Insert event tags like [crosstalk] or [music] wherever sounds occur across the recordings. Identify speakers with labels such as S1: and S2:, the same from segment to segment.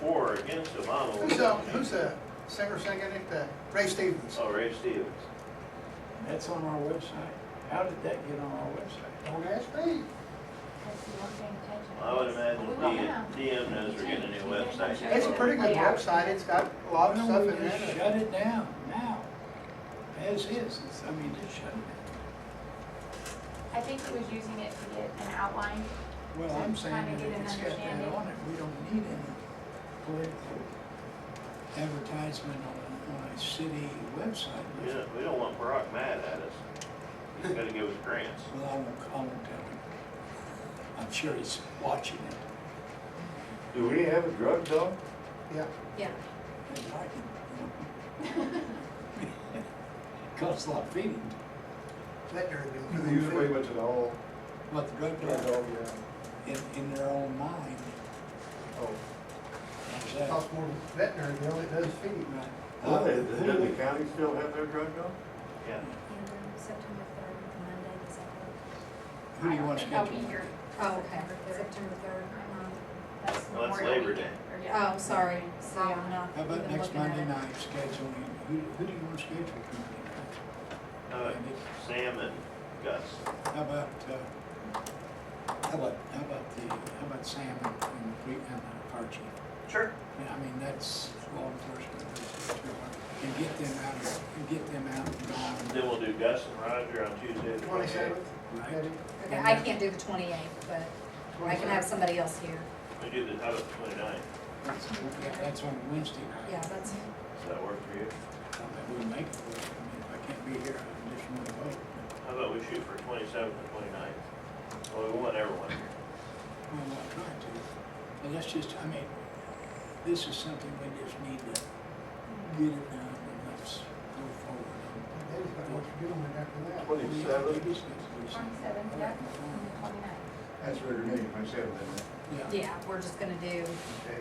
S1: for or against them, I don't
S2: Who's
S1: know.
S2: the, who's the singer singing it, the Ray Stevens?
S1: Oh, Ray Stevens.
S3: That's on our website. How did that get on our website?
S2: Don't ask me.
S1: I would imagine DM, DM knows we're getting a new website.
S2: It's a pretty good website, it's got a lot of
S3: No,
S2: stuff
S3: we
S2: in
S3: just
S2: there.
S3: shut it down now, as is, It's- I mean, just shut it
S4: I think he was using it to get an outline.
S3: down. Well, I'm
S4: Just trying
S3: saying that
S4: to get
S3: if
S4: an
S3: it's got that
S4: understanding.
S3: on it, we don't need any political advertisement on, on a city website.
S1: We don't, we don't want Brock mad at us. He's gotta give us grants.
S3: Well, I won't, I won't tell him. I'm sure he's watching it.
S5: Do we have a drug dog?
S2: Yeah,
S6: Yeah,
S3: They like it, [laughs] you know. Costs a lot of feeding,
S2: veterinary bill.
S5: They usually went to the uh, whole,
S3: but the drug
S5: drug
S3: dealer,
S5: dog, yeah.
S3: in, in their own mind,
S5: Oh.
S3: is
S2: It
S3: that
S2: Costs more than veterinary bill, than it does feed.
S3: right?
S5: Well, they- Doesn't Oh, the county still have their drug dog?
S1: Yeah.
S6: and then September third, Monday, is that what?
S3: Who do you want to
S4: I'll be here.
S3: schedule?
S6: Oh, okay, September third, um,
S4: That's
S1: Well, that's
S4: Memorial
S1: Labor
S4: weekend, or yeah.
S6: oh, sorry, so I'm not
S3: How about
S6: even
S3: next
S6: looking at
S3: Monday
S6: it.
S3: night scheduling, who, who do you want to schedule for Monday night?
S1: Uh, Sam and Gus.
S3: How about, uh, how about, how about the, how about Sam and, and Fre- and the fire chief?
S2: Sure.
S3: Yeah, I mean, that's law enforcement, that's too hard. and get them out, of- and get them out and gone,
S1: Then we'll do Gus and Roger on Tuesday. the 28th.
S2: Twenty-seventh,
S3: right?
S2: maybe.
S6: Okay, I can't do the twenty-eighth, but I can have somebody else here,
S1: We do the, how about the 29th?
S3: That's, yeah, that's on Wednesday night.
S6: yeah, that's,
S1: Does that work for you?
S3: I wouldn't make it work, I mean, if I can't be here, I just want to vote.
S1: How about we shoot for 27th and 29th? Well, we want everyone here.
S3: Well, I'm trying to, but that's just, I mean, this is something we just need to get it done and let's go forward.
S2: Dave's got what you're doing after that.
S3: Oh.
S5: Twenty-seven?
S4: Twenty-seventh, yeah, twenty-ninth.
S5: That's where they're meeting, twenty-seven, isn't it?
S3: Yeah,
S6: yeah, we're just gonna do,
S2: Okay.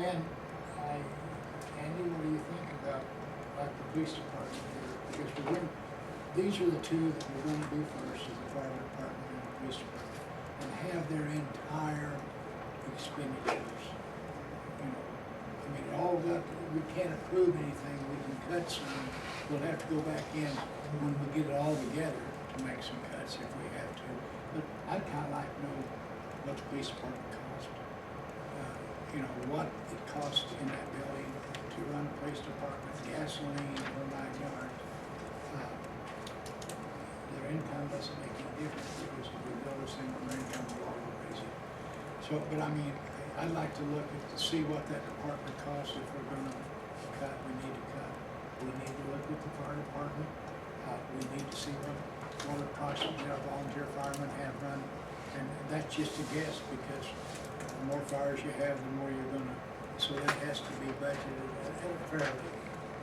S3: and I, Andy, what do you think about, like, the police department here? Because we're going, these are the two that we're gonna do first, is the fire department and the police department, and have their entire expenditures. You know, I mean, all that, we can't approve anything, we can cut some, we'll have to go back in when we get it all together to make some cuts if we have to. But I'd kinda like to know what the police department cost, uh, you know, what it costs in that building to run a police department, gasoline, or my yard. Uh, Their income doesn't make any difference, because if we build this thing on their income, we'll all raise it. So, but I mean, I'd like to look at, to see what that department costs, if we're gonna cut, we need to cut. We need to look at the fire department, uh, we need to see what, what approximately our volunteer firemen have run. And that's just a guess, because the more fires you have, the more you're gonna, so that has to be budgeted at a fairly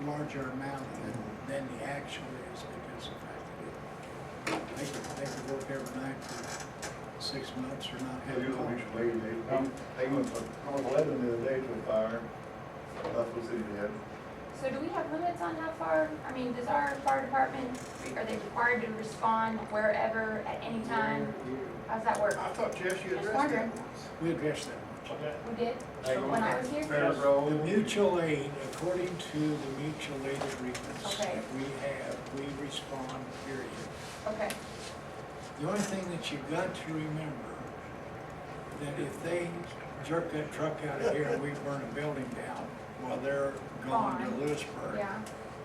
S3: larger amount than, than the actual is, because of the fact that it, they could, they could work every night for six months or not have.
S5: Have you
S3: calls.
S5: ever reached lady, they, they went from North Lebanon the other day to a fire, Buffalo City, they had
S4: So do we have limits on how far, I mean, does our fire department, are they required to respond wherever, at any time? How's that work?
S2: I thought, Jess, you
S4: Just
S2: addressed
S4: wondering.
S2: that once.
S3: We addressed that.
S4: We did,
S5: Hey, you
S4: when I
S5: want
S4: was here?
S5: Fair
S3: The
S5: Road.
S3: mutual aid, according to the mutual aid agreements
S4: Okay.
S3: that we have, we respond, period.
S4: Okay,
S3: The only thing that you've got to remember, that if they jerk that truck out of here and we burn a building down, while they're gone to
S4: Gone.
S3: Lewisburg,
S4: yeah.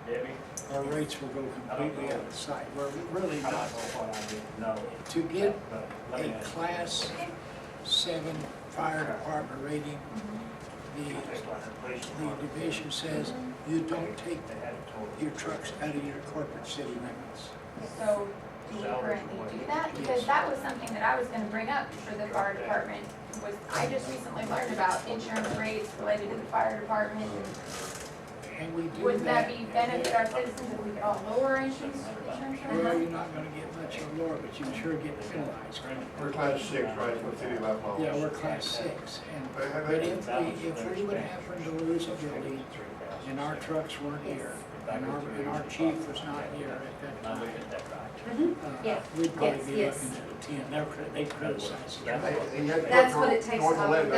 S7: Debbie,
S3: our rates will go completely out of sight. We're really
S7: I don't know
S3: not,
S7: what I did, no.
S3: to get
S7: But let
S3: a
S7: me ask you.
S3: class seven fire department rating,
S4: mm-hmm.
S3: the
S7: Just like the police
S3: the
S7: department,
S3: division says you don't take
S7: They had it toward.
S3: your trucks out of your corporate city limits.
S4: So do we currently do that? Because that was something that I was gonna bring up for the fire department, was I just recently learned about insurance rates related to the fire department.
S3: And we do that.
S4: Wouldn't that be benefit our citizens if we could all lower insurance, insurance
S3: Well,
S4: rates?
S3: you're not gonna get much lower, but you sure get penalized.
S5: We're class six, right, for city of Buffalo.
S3: Yeah, we're class six, and,
S5: But have
S3: but
S5: they-
S3: if we, if we would happen to lose a building and our trucks weren't here, and our, and our chief was not here at that
S7: Am I
S3: time,
S7: looking at that right?
S6: Mhm.
S3: uh,
S6: Yeah.
S3: we'd probably
S6: Yes,
S3: be looking
S6: yes.
S3: at a ten, they're, cri- they criticize us.
S7: Yeah.
S5: They- they had to go
S6: That's
S5: to
S6: what it takes
S5: North
S6: off.
S5: Lebanon.